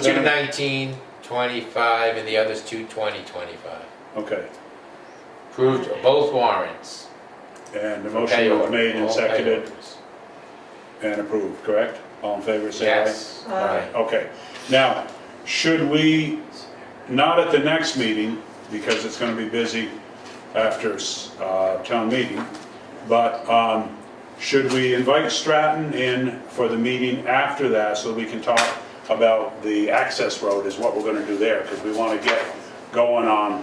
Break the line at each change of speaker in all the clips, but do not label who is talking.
Two
then,
nineteen twenty-five and the other's two twenty twenty-five.
okay,
Approved both warrants.
and the
for
motion
pay
was
order,
made and
all pay
seconded
orders.
and approved, correct? All in favor, say aye.
Yes,
Aye.
aye.
Okay, now, should we, not at the next meeting, because it's gonna be busy after, uh, town meeting, but, um, should we invite Stratton in for the meeting after that, so we can talk about the access road is what we're gonna do there, because we wanna get going on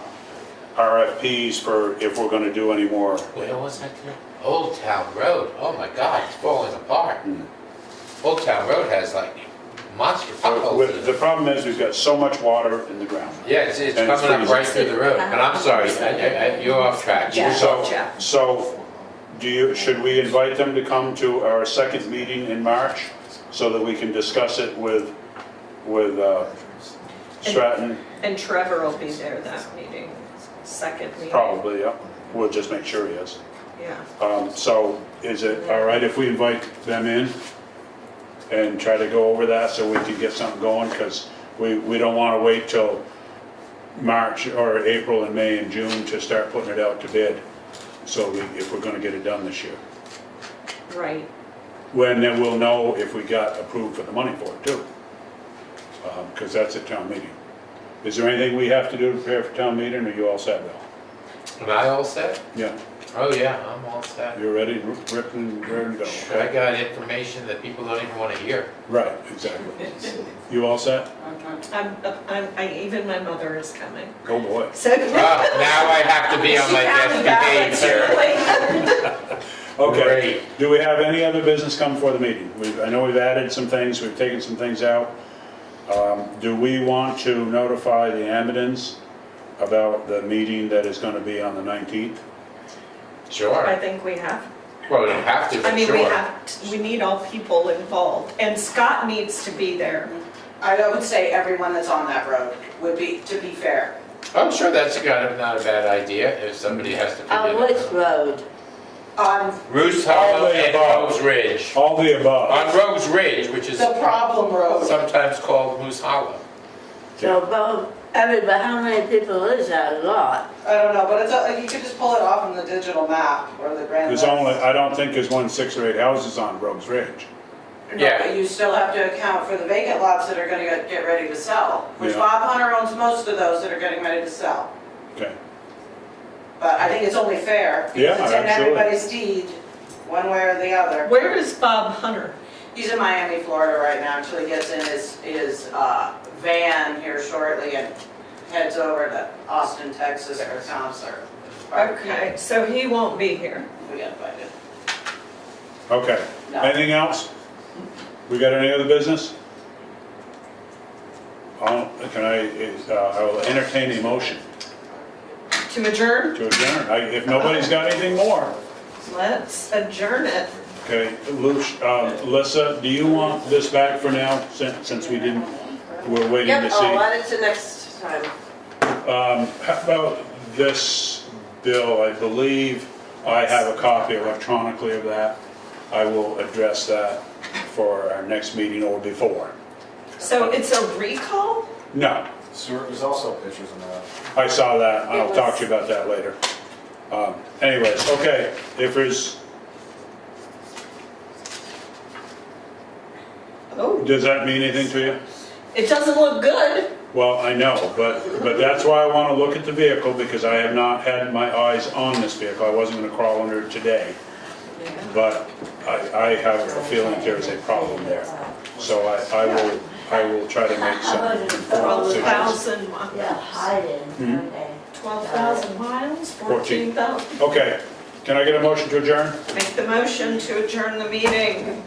RFPs for if we're gonna do any more.
Where was that? town? Old Town Road, oh my God, it's falling apart. Old Town Road has like monster potholes in
Hmm. With-
it.
The problem is, we've got so much water in the ground.
Yeah, it's, it's
And it's
coming up right
freezing.
through the road, but
Uh-huh.
I'm sorry, I- I- I- you're off track.
Yeah.
So,
Jeff.
so do you, should we invite them to come to our second meeting in March so that we can discuss it with, with uh, Stratton?
And Trevor will be there that meeting, second meeting.
Oh.
Probably, yeah. We'll just make sure he is.
Yeah.
Um, So is it all right if we invite them in and try to go over that so we can get something going? Because we, we don't want to wait till March or April and May and June to start putting it out to bid. So we, if we're going to get it done this year.
Right.
When then we'll know if we got approved for the money for it too. Because that's at town meeting. Is there anything we have to do to prepare for town meeting, or you all set, Bill?
Am I all set?
Yeah,
Oh, yeah, I'm all set.
you're ready, ripping and ready to go,
I
okay?
got information that people don't even wanna hear.
Right, exactly. You all set?
I'm, I'm, I, even my mother is coming.
Go boy.
So.
Oh, now I have to be on my best behavior, sir.
Okay,
Great.
do we have any other business come for the meeting? We've, I know we've added some things, we've taken some things out. Um, Do we want to notify the Amidans about the meeting that is gonna be on the 19th?
I
Sure,
think we have,
well, we don't have to,
I
but
mean, we
sure.
have, t- we need all people involved, and Scott needs to be there.
I would say everyone that's on that road would be, to be fair.
I'm sure that's kind of not a bad idea if somebody has to
Oh,
On
figure
which
it out.
road?
Um,
Roos Hollow
All the
and
above.
Rogues Ridge.
All the above.
On Rogues Ridge, which is
the problem road,
sometimes called Moose Hollow.
So both, I mean, but how many people is that lot?
I don't know, but it's, a- you could just pull it off on the digital map or the grand
There's
list.
only, I don't think there's one six or eight houses on Rogues Ridge.
No,
Yeah.
but you still have to account for the vacant lots that are gonna get, get ready to sell, which
Yeah.
Bob Hunter owns most of those that are getting ready to sell.
Okay,
But I think it's only fair,
Yeah,
because it's in
absolutely.
everybody's deed, one way or the other.
Where is Bob Hunter?
He's in Miami, Florida right now, until he gets in his, his uh, van here shortly and heads over to Austin, Texas for a concert.
Okay, so he won't be here.
We got invited.
okay.
No.
Anything else? We got any other business? I'll- Can I, is, uh, I will entertain a motion
To adjourn?
to adjourn. I- If nobody's got anything more.
Let's adjourn it.
Okay, Lu- uh, Alyssa, do you want this back for now, since since we didn't, we're waiting to
Yep, Oh, I'll
see?
add it to next time.
Um, How about this bill? I believe I have a copy electronically of that. I will address that for our next meeting or before.
So it's a recall?
No,
Stuart, there's also pictures in that.
I saw that,
It
I'll
was-
talk to you about that later. Um, Anyways, okay, if there's,
Oh,
does that mean anything to you?
it doesn't look good.
Well, I know, but, but that's why I want to look at the vehicle, because I have not had my eyes on this vehicle. I wasn't going to crawl under it today. But I, I have a feeling there is a problem there. So I, I will, I will try to make some informed decisions.
12,000
Yeah,
miles.
hide it,
Hmm?
okay.
12,000 miles,
Fourteen.
14,000.
Okay, can I get a motion to adjourn?
Make the motion to adjourn the meeting.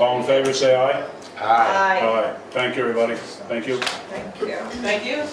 All in favor, say aye.
Aye.
Aye,
Aye. Thank you, everybody. Thank you.
thank you.
Thank you.